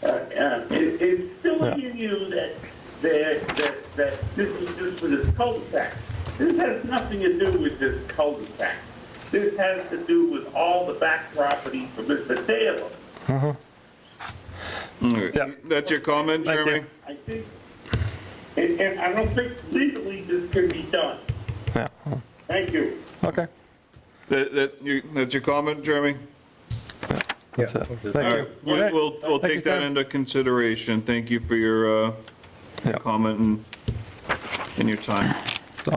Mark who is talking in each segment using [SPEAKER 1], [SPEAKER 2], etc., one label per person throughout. [SPEAKER 1] Uh, It's
[SPEAKER 2] Yeah.
[SPEAKER 1] silly you knew that, that, that, that this is just for this cul-de-sac. This has nothing to do with this cul-de-sac. This has to do with all the back property for Mr. Taylor.
[SPEAKER 2] Yeah.
[SPEAKER 3] That's your comment,
[SPEAKER 2] Thank you.
[SPEAKER 3] Jeremy?
[SPEAKER 1] I think, and, and I don't think legally this can be done.
[SPEAKER 2] Yeah,
[SPEAKER 1] Thank you.
[SPEAKER 2] okay,
[SPEAKER 3] That, that, you- that's your comment, Jeremy?
[SPEAKER 2] that's it,
[SPEAKER 3] All
[SPEAKER 2] thank
[SPEAKER 3] right,
[SPEAKER 2] you.
[SPEAKER 3] we-
[SPEAKER 2] Okay.
[SPEAKER 3] we'll, we'll
[SPEAKER 2] Thank you,
[SPEAKER 3] take that
[SPEAKER 2] Sam.
[SPEAKER 3] into consideration. Thank you for your, uh,
[SPEAKER 2] Yeah.
[SPEAKER 3] comment and, and your time.
[SPEAKER 2] So,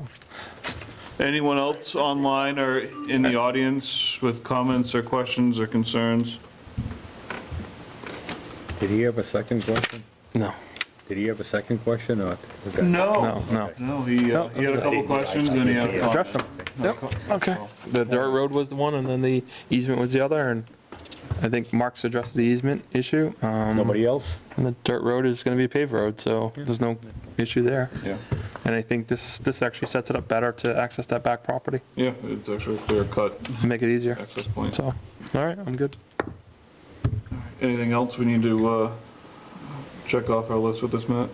[SPEAKER 3] Anyone else online or in the audience with comments or questions or concerns?
[SPEAKER 4] Did he have a second question?
[SPEAKER 2] No,
[SPEAKER 4] Did he have a second question or? was that-
[SPEAKER 2] no, no.
[SPEAKER 3] No, he, uh,
[SPEAKER 2] No,
[SPEAKER 3] he had a couple
[SPEAKER 4] I-
[SPEAKER 3] questions and he had a
[SPEAKER 2] Address
[SPEAKER 3] comment.
[SPEAKER 2] them, yep, okay. The dirt road was the one, and then the easement was the other, and I think Mark's addressed the easement issue. Um,
[SPEAKER 4] Nobody else?
[SPEAKER 2] And the dirt road is gonna be a paved road, so there's no issue there.
[SPEAKER 3] Yeah,
[SPEAKER 2] And I think this, this actually sets it up better to access that back property,
[SPEAKER 3] yeah, it's actually a clear cut
[SPEAKER 2] and make it easier.
[SPEAKER 3] access point.
[SPEAKER 2] So, all right, I'm good.
[SPEAKER 3] Anything else we need to, uh, check off our list with this, Matt?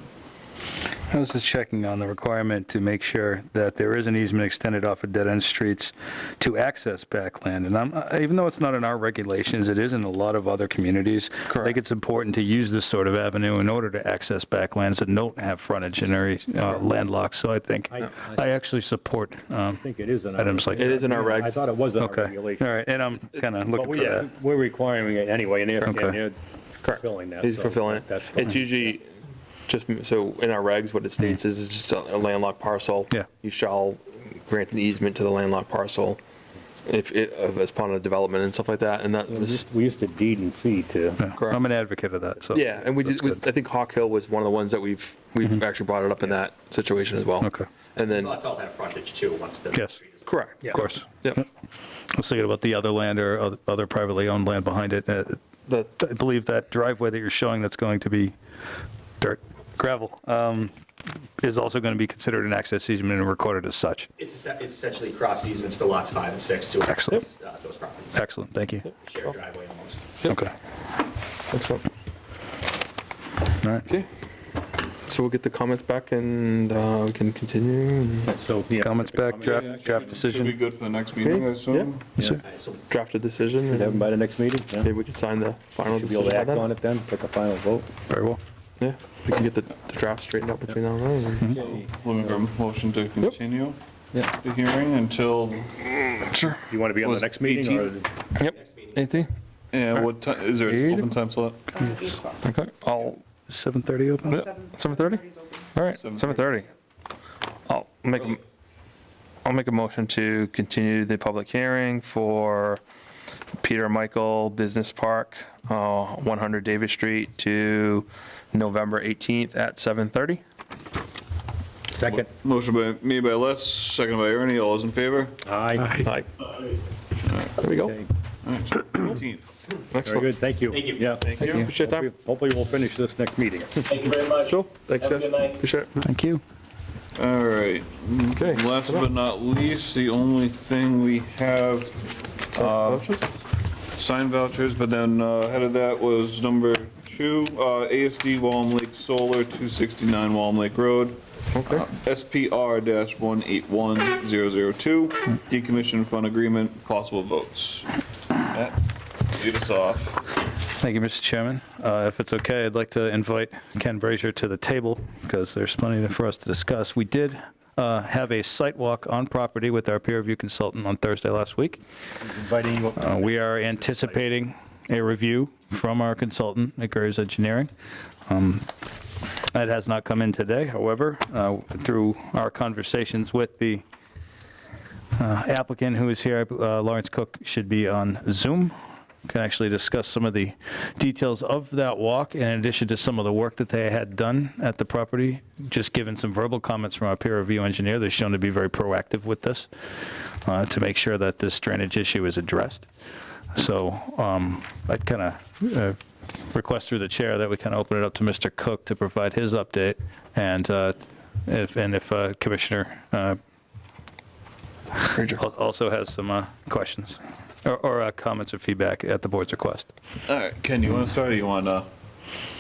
[SPEAKER 5] I was just checking on the requirement to make sure that there is an easement extended off of dead-end streets to access backland. And I'm, uh, even though it's not in our regulations, it is in a lot of other communities. I
[SPEAKER 2] Correct.
[SPEAKER 5] think it's important to use this sort of avenue in order to access backlands that don't have frontage and are uh, landlocked. So I think,
[SPEAKER 4] I-
[SPEAKER 5] I actually support, um,
[SPEAKER 4] I think it is in our.
[SPEAKER 5] Items like
[SPEAKER 2] It is in our regs.
[SPEAKER 4] I thought it was in our
[SPEAKER 5] okay, all
[SPEAKER 4] regulation.
[SPEAKER 5] right, and I'm kind of
[SPEAKER 4] But
[SPEAKER 5] looking for
[SPEAKER 4] we, uh,
[SPEAKER 5] that.
[SPEAKER 4] we're requiring it anyway, and they're, and
[SPEAKER 5] Okay.
[SPEAKER 4] they're
[SPEAKER 2] Correct.
[SPEAKER 4] fulfilling that.
[SPEAKER 2] He's
[SPEAKER 4] so
[SPEAKER 2] fulfilling it.
[SPEAKER 4] That's
[SPEAKER 2] It's
[SPEAKER 4] fine.
[SPEAKER 2] usually just, so in our regs, what it states is it's just a landlocked parcel.
[SPEAKER 5] Yeah.
[SPEAKER 2] You shall grant an easement to the landlocked parcel if, it- of- as part of the development and stuff like that, and that
[SPEAKER 4] Mm-hmm.
[SPEAKER 2] was,
[SPEAKER 4] We used to deed and fee to.
[SPEAKER 5] Yeah,
[SPEAKER 2] correct.
[SPEAKER 5] I'm an advocate of that, so.
[SPEAKER 2] yeah, and we
[SPEAKER 5] that's
[SPEAKER 2] did, we-
[SPEAKER 5] good.
[SPEAKER 2] I think Hawk Hill was one of the ones that we've, we've actually brought it up in that situation as well.
[SPEAKER 5] Mm-hmm. Okay.
[SPEAKER 2] And then,
[SPEAKER 6] These lots all have frontage too, once the.
[SPEAKER 5] Yes.
[SPEAKER 6] street is-
[SPEAKER 2] correct.
[SPEAKER 5] Of course.
[SPEAKER 2] Yep,
[SPEAKER 5] I was thinking about the other land or oth- other privately owned land behind it. Uh,
[SPEAKER 2] the,
[SPEAKER 5] I believe that driveway that you're showing that's going to be dirt, gravel, um, is also going to be considered an access easement and recorded as such.
[SPEAKER 6] It's essen- it's essentially cross easements for lots five and six to
[SPEAKER 5] Excellent.
[SPEAKER 6] access uh, those properties,
[SPEAKER 5] Excellent, thank you.
[SPEAKER 6] shared driveway almost.
[SPEAKER 5] Okay.
[SPEAKER 2] excellent.
[SPEAKER 5] All right.
[SPEAKER 2] Okay. So we'll get the comments back and uh, we can continue.
[SPEAKER 4] So, yeah.
[SPEAKER 5] Comments back, draft, draft
[SPEAKER 3] Should be
[SPEAKER 5] decision.
[SPEAKER 3] good for the next meeting, I assume?
[SPEAKER 2] Sure.
[SPEAKER 6] All right, Uh, so
[SPEAKER 2] Draft a decision
[SPEAKER 4] Have them
[SPEAKER 2] and
[SPEAKER 4] by the next meeting? yeah?
[SPEAKER 2] maybe we can sign the final
[SPEAKER 4] Should be able
[SPEAKER 2] decision
[SPEAKER 4] to
[SPEAKER 2] by
[SPEAKER 4] act on
[SPEAKER 2] then.
[SPEAKER 4] it then, take a final vote.
[SPEAKER 5] Very well.
[SPEAKER 2] Yeah, we can get the the draft straightened out between now and then.
[SPEAKER 3] So, Looking for a motion to continue the hearing until,
[SPEAKER 2] Sure.
[SPEAKER 4] You want to be on the
[SPEAKER 3] Was
[SPEAKER 4] next meeting or?
[SPEAKER 3] 18th?
[SPEAKER 2] Yep.
[SPEAKER 6] next meeting.
[SPEAKER 2] Anything?
[SPEAKER 3] and what time, is there an open time slot?
[SPEAKER 2] Okay. I'll,
[SPEAKER 5] 7:30 open?
[SPEAKER 2] yeah, 7:30? All right, 7:30. I'll make, a- I'll make a motion to continue the public hearing for Peter Michael Business Park, uh, 100 Davis Street to November 18th at 7:30.
[SPEAKER 4] Second.
[SPEAKER 3] Motion by, made by Les, second by Ernie, all those in favor?
[SPEAKER 4] Aye.
[SPEAKER 2] Aye. There we go.
[SPEAKER 4] Okay,
[SPEAKER 3] All right, so 18th.
[SPEAKER 4] Very
[SPEAKER 2] Excellent.
[SPEAKER 4] good, thank you.
[SPEAKER 6] Thank you.
[SPEAKER 4] Yeah.
[SPEAKER 2] Appreciate your time.
[SPEAKER 4] Hopefully- Hopefully we'll finish this next meeting.
[SPEAKER 1] Thank you very much.
[SPEAKER 2] Cool. Thanks,
[SPEAKER 1] Have a
[SPEAKER 2] guys.
[SPEAKER 1] good night.
[SPEAKER 2] Appreciate it.
[SPEAKER 5] Thank you.
[SPEAKER 3] All right,
[SPEAKER 2] Okay.
[SPEAKER 3] last but not least, the only thing we have, uh, sign vouchers, but then uh, ahead of that was number two, uh, ASD Walm Lake Solar, 269 Walm Lake Road. Uh,
[SPEAKER 2] Okay.
[SPEAKER 3] SPR-181002, decommission fund agreement, possible votes. Matt, Lead us off.
[SPEAKER 5] Thank you, Mr. Chairman. Uh, If it's okay, I'd like to invite Ken Brazier to the table because there's plenty there for us to discuss. We did uh, have a site walk on property with our peer review consultant on Thursday last week.
[SPEAKER 4] Inviting you up.
[SPEAKER 5] Uh, We are anticipating a review from our consultant, McGurry's Engineering. Um, That has not come in today, however, uh, through our conversations with the uh, applicant who is here, uh, Lawrence Cook, should be on Zoom, can actually discuss some of the details of that walk in addition to some of the work that they had done at the property, just given some verbal comments from our peer review engineer, they're shown to be very proactive with this uh, to make sure that this drainage issue is addressed. So um, I'd kind of request through the chair that we kind of open it up to Mr. Cook to provide his update, and uh, if, and if uh, Commissioner uh, al- also has some uh, questions or- or uh, comments or feedback at the board's request.
[SPEAKER 3] All right, Ken, you want to start or you want to?